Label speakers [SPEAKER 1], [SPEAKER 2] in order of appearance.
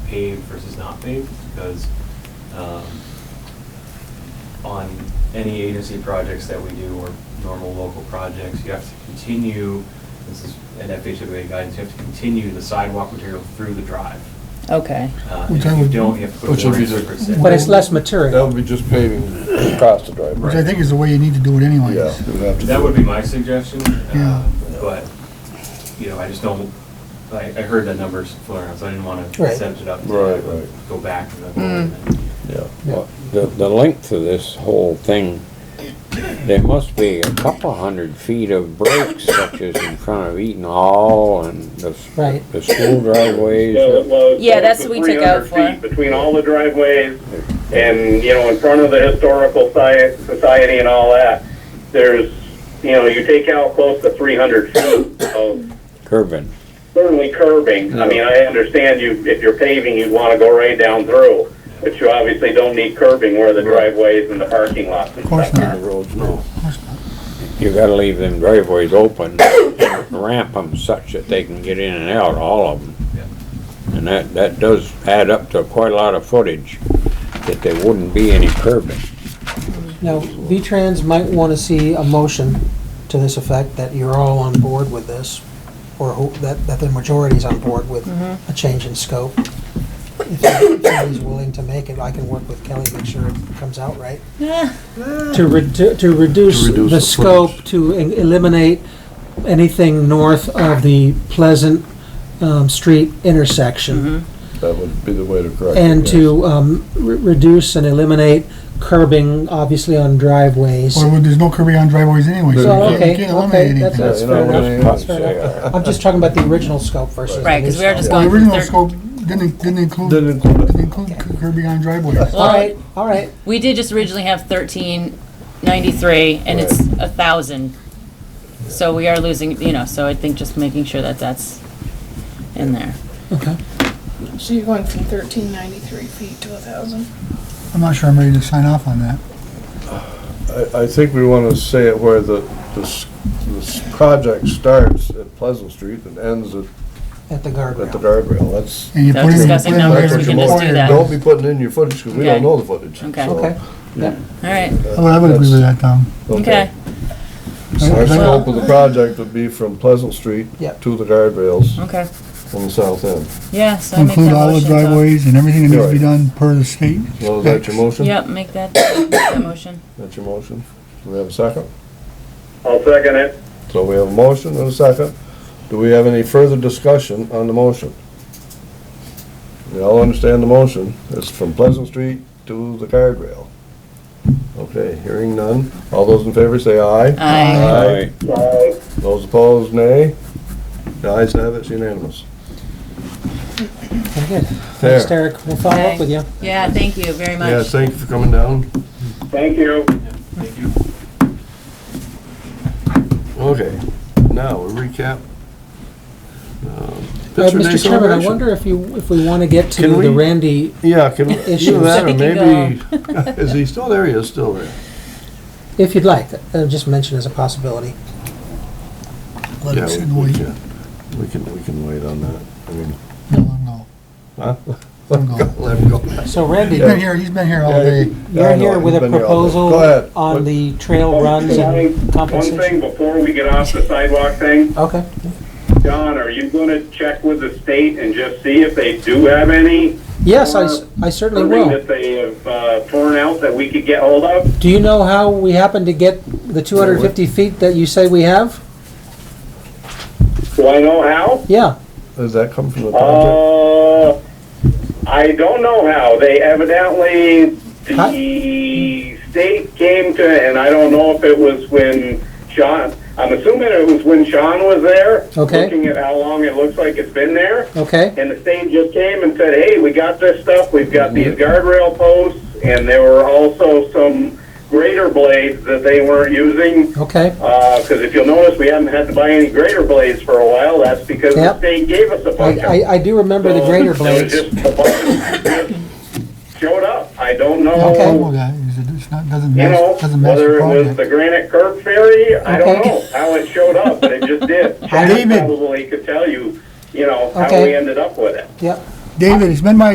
[SPEAKER 1] paved versus not paved, because um, on any agency projects that we do, or normal local projects, you have to continue, this is an FHWA guidance, you have to continue the sidewalk material through the drive.
[SPEAKER 2] Okay.
[SPEAKER 1] Uh,
[SPEAKER 3] Which
[SPEAKER 1] If
[SPEAKER 3] I
[SPEAKER 1] you
[SPEAKER 3] would-
[SPEAKER 1] don't, you have to put
[SPEAKER 4] Which would be
[SPEAKER 1] warrants
[SPEAKER 4] the-
[SPEAKER 1] for consent.
[SPEAKER 5] But it's less
[SPEAKER 4] That
[SPEAKER 5] material.
[SPEAKER 4] would be just paving across the driveway.
[SPEAKER 3] Which I think is the way you need to do it anyways.
[SPEAKER 4] Yeah. we'd have to
[SPEAKER 1] That
[SPEAKER 4] do
[SPEAKER 1] would
[SPEAKER 4] it.
[SPEAKER 1] be my suggestion,
[SPEAKER 3] Yeah.
[SPEAKER 1] uh, but, you know, I just don't, I, I heard the numbers floating around, so I didn't want to
[SPEAKER 5] Right.
[SPEAKER 1] set it up to
[SPEAKER 4] Right, right.
[SPEAKER 1] go back to the goal. and then-
[SPEAKER 4] Yeah.
[SPEAKER 5] Yeah.
[SPEAKER 6] The, the length of this whole thing, there must be a couple hundred feet of breaks such as in front of Eaton Hall and the,
[SPEAKER 5] Right.
[SPEAKER 6] the school driveways.
[SPEAKER 7] Well, well,
[SPEAKER 2] Yeah,
[SPEAKER 7] it's
[SPEAKER 2] that's
[SPEAKER 7] the
[SPEAKER 2] what we took out
[SPEAKER 7] 300
[SPEAKER 2] for.
[SPEAKER 7] feet Between all the driveways and, you know, in front of the historical sci- society and all that, there's, you know, you take out close to three hundred feet of
[SPEAKER 6] Curbing.
[SPEAKER 7] certainly curbing. I mean, I understand you, if you're paving, you'd wanna go right down through, but you obviously don't need curbing where the driveways and the parking lots and
[SPEAKER 3] Of course
[SPEAKER 7] stuff
[SPEAKER 3] not.
[SPEAKER 7] are.
[SPEAKER 4] The roads, no.
[SPEAKER 6] You gotta leave them driveways open, ramp them such that they can get in and out, all of
[SPEAKER 1] Yeah.
[SPEAKER 6] them. And that, that does add up to quite a lot of footage, that there wouldn't be any curbing.
[SPEAKER 5] Now, V-Trans might want to see a motion to this effect, that you're all on board with this, or who- that, that the majority's on board with a change in scope. If somebody's willing to make it, I can work with Kelly, make sure it comes out right. To re, to,
[SPEAKER 4] To
[SPEAKER 5] to reduce
[SPEAKER 4] reduce
[SPEAKER 5] the
[SPEAKER 4] the
[SPEAKER 5] scope,
[SPEAKER 4] footage.
[SPEAKER 5] to e- eliminate anything north of the Pleasant, um, Street intersection.
[SPEAKER 4] That would be the way to correct it.
[SPEAKER 5] And
[SPEAKER 4] yes.
[SPEAKER 5] to um, re- reduce and eliminate curbing, obviously, on driveways.
[SPEAKER 3] Or there's no Kirby on driveways anyways. so
[SPEAKER 5] So,
[SPEAKER 3] you can't- you
[SPEAKER 5] okay,
[SPEAKER 3] can't
[SPEAKER 5] okay,
[SPEAKER 3] eliminate
[SPEAKER 5] that's,
[SPEAKER 3] anything.
[SPEAKER 4] Yeah,
[SPEAKER 5] that's
[SPEAKER 4] you
[SPEAKER 5] fair
[SPEAKER 4] know,
[SPEAKER 5] enough.
[SPEAKER 4] when
[SPEAKER 5] That's
[SPEAKER 6] they-
[SPEAKER 5] fair enough. I'm just talking about the original scope versus the new scope.
[SPEAKER 2] Right, because we are just
[SPEAKER 3] The
[SPEAKER 2] going from
[SPEAKER 3] original
[SPEAKER 2] thirty.
[SPEAKER 3] scope didn't, didn't include,
[SPEAKER 4] Didn't include it.
[SPEAKER 3] didn't include Kirby on driveways.
[SPEAKER 5] All right, all right,
[SPEAKER 2] We did just originally have thirteen ninety-three, and it's a thousand. So we are losing, you know, so I think just making sure that that's in there.
[SPEAKER 5] okay.
[SPEAKER 8] So you're going from thirteen ninety-three feet to a thousand?
[SPEAKER 3] I'm not sure I'm ready to sign off on that.
[SPEAKER 4] I, I think we want to say it where the, this, this project starts at Pleasant Street and ends at,
[SPEAKER 5] At the
[SPEAKER 4] at the
[SPEAKER 5] guardrail.
[SPEAKER 4] guardrail, that's.
[SPEAKER 3] And you
[SPEAKER 2] Now
[SPEAKER 3] put in- you
[SPEAKER 2] discussing
[SPEAKER 3] put in-
[SPEAKER 2] numbers,
[SPEAKER 4] that's what
[SPEAKER 2] we
[SPEAKER 4] you
[SPEAKER 2] can just
[SPEAKER 4] want.
[SPEAKER 2] do that.
[SPEAKER 4] Don't be putting in your footage, because we
[SPEAKER 2] Okay.
[SPEAKER 4] don't know the footage.
[SPEAKER 2] Okay.
[SPEAKER 4] so-
[SPEAKER 5] Okay,
[SPEAKER 2] All right,
[SPEAKER 3] I would- I would agree with that, Tom.
[SPEAKER 2] okay.
[SPEAKER 4] So Our
[SPEAKER 2] Well-
[SPEAKER 4] scope of the project would be from Pleasant Street
[SPEAKER 5] Yeah.
[SPEAKER 4] to the guardrails
[SPEAKER 2] Okay,
[SPEAKER 4] on the south end.
[SPEAKER 2] yeah, so I make that
[SPEAKER 3] Include all the
[SPEAKER 2] motion. so-
[SPEAKER 3] driveways and everything that needs to be
[SPEAKER 4] Right.
[SPEAKER 3] done per the state.
[SPEAKER 4] So is that your motion?
[SPEAKER 2] Yep, make that, make that motion.
[SPEAKER 4] That's your motion? Do we have a second?
[SPEAKER 7] I'll second it.
[SPEAKER 4] So we have a motion and a second. Do we have any further discussion on the motion? We all understand the motion. It's from Pleasant Street to the guardrail. Okay, hearing none. All those in favor say aye.
[SPEAKER 2] Aye.
[SPEAKER 6] Alright,
[SPEAKER 7] Aye.
[SPEAKER 4] Those opposed, nay. The ayes have it, it's unanimous.
[SPEAKER 5] very good. Thanks,
[SPEAKER 4] There.
[SPEAKER 5] Derek, we'll follow up with you. Uh,
[SPEAKER 2] Yeah, thank you very much.
[SPEAKER 4] Yeah, thank you for coming down.
[SPEAKER 7] Thank you.
[SPEAKER 1] Thank you.
[SPEAKER 4] Okay, now we recap. Um,
[SPEAKER 5] Uh,
[SPEAKER 4] Pittsburgh Day
[SPEAKER 5] Mr. Chairman, I
[SPEAKER 4] celebration.
[SPEAKER 5] wonder if you, if we want to get
[SPEAKER 4] Can
[SPEAKER 5] to
[SPEAKER 4] we-
[SPEAKER 5] the Randy,
[SPEAKER 4] Yeah, can we
[SPEAKER 5] Issues.
[SPEAKER 4] do that,
[SPEAKER 2] I
[SPEAKER 4] or maybe,
[SPEAKER 2] think
[SPEAKER 4] is he still there? He is still there.
[SPEAKER 5] if you'd like, uh, just mention as a possibility.
[SPEAKER 3] Let
[SPEAKER 4] Yeah,
[SPEAKER 3] it sit and
[SPEAKER 4] we- we
[SPEAKER 3] wait.
[SPEAKER 4] can- We can, we can wait on that. I mean,
[SPEAKER 3] No, no.
[SPEAKER 4] huh?
[SPEAKER 3] Let him go.
[SPEAKER 4] Let him go.
[SPEAKER 5] So
[SPEAKER 3] He's
[SPEAKER 5] Randy,
[SPEAKER 3] been here, he's been here all
[SPEAKER 4] Yeah,
[SPEAKER 3] day.
[SPEAKER 4] I
[SPEAKER 5] you're
[SPEAKER 4] know,
[SPEAKER 5] here with a
[SPEAKER 4] he's been here all day. Go
[SPEAKER 5] proposal
[SPEAKER 4] ahead.
[SPEAKER 5] on
[SPEAKER 4] What-
[SPEAKER 5] the trail runs and
[SPEAKER 7] One
[SPEAKER 5] compensation.
[SPEAKER 7] thing before we get off the sidewalk thing,
[SPEAKER 5] Okay,
[SPEAKER 7] John, are you gonna check with the state and just see if they do have any?
[SPEAKER 5] yes, I s- I certainly
[SPEAKER 7] Something
[SPEAKER 5] will.
[SPEAKER 7] that they have uh, torn out that we could get hold of?
[SPEAKER 5] Do you know how we happen to get the 250 feet that you say we have?
[SPEAKER 7] Do I know how?
[SPEAKER 5] Yeah,
[SPEAKER 4] Does that come from the project?
[SPEAKER 7] Uh, I don't know how. They evidently,
[SPEAKER 5] Huh?
[SPEAKER 7] the state came to, and I don't know if it was when Sean, I'm assuming it was when Sean was there.
[SPEAKER 5] Okay.
[SPEAKER 7] Looking at how long it looks like it's been there.
[SPEAKER 5] okay,
[SPEAKER 7] And the state just came and said, hey, we got this stuff, we've got these guardrail posts, and there were also some grater blades that they weren't using.
[SPEAKER 5] okay,
[SPEAKER 7] Because if you'll notice, we haven't had to buy any grater blades for a while, that's because the
[SPEAKER 5] Yep.
[SPEAKER 7] state gave us a bunch of
[SPEAKER 5] I, I, I do remember the grater
[SPEAKER 7] so it was
[SPEAKER 5] blades.
[SPEAKER 7] just a bunch that just Showed up, I don't
[SPEAKER 3] Okay,
[SPEAKER 7] know,
[SPEAKER 3] well, guys, it's not, doesn't
[SPEAKER 7] you
[SPEAKER 3] match,
[SPEAKER 7] know,
[SPEAKER 3] doesn't match the
[SPEAKER 7] whether it was
[SPEAKER 3] project.
[SPEAKER 7] the granite curb ferry, I don't
[SPEAKER 5] Okay.
[SPEAKER 7] know how it showed up, but it just did. Chad
[SPEAKER 3] David.
[SPEAKER 7] Probably could tell you, you know, how
[SPEAKER 5] Okay.
[SPEAKER 7] we ended up with it.
[SPEAKER 5] Yep.
[SPEAKER 3] David, it's been my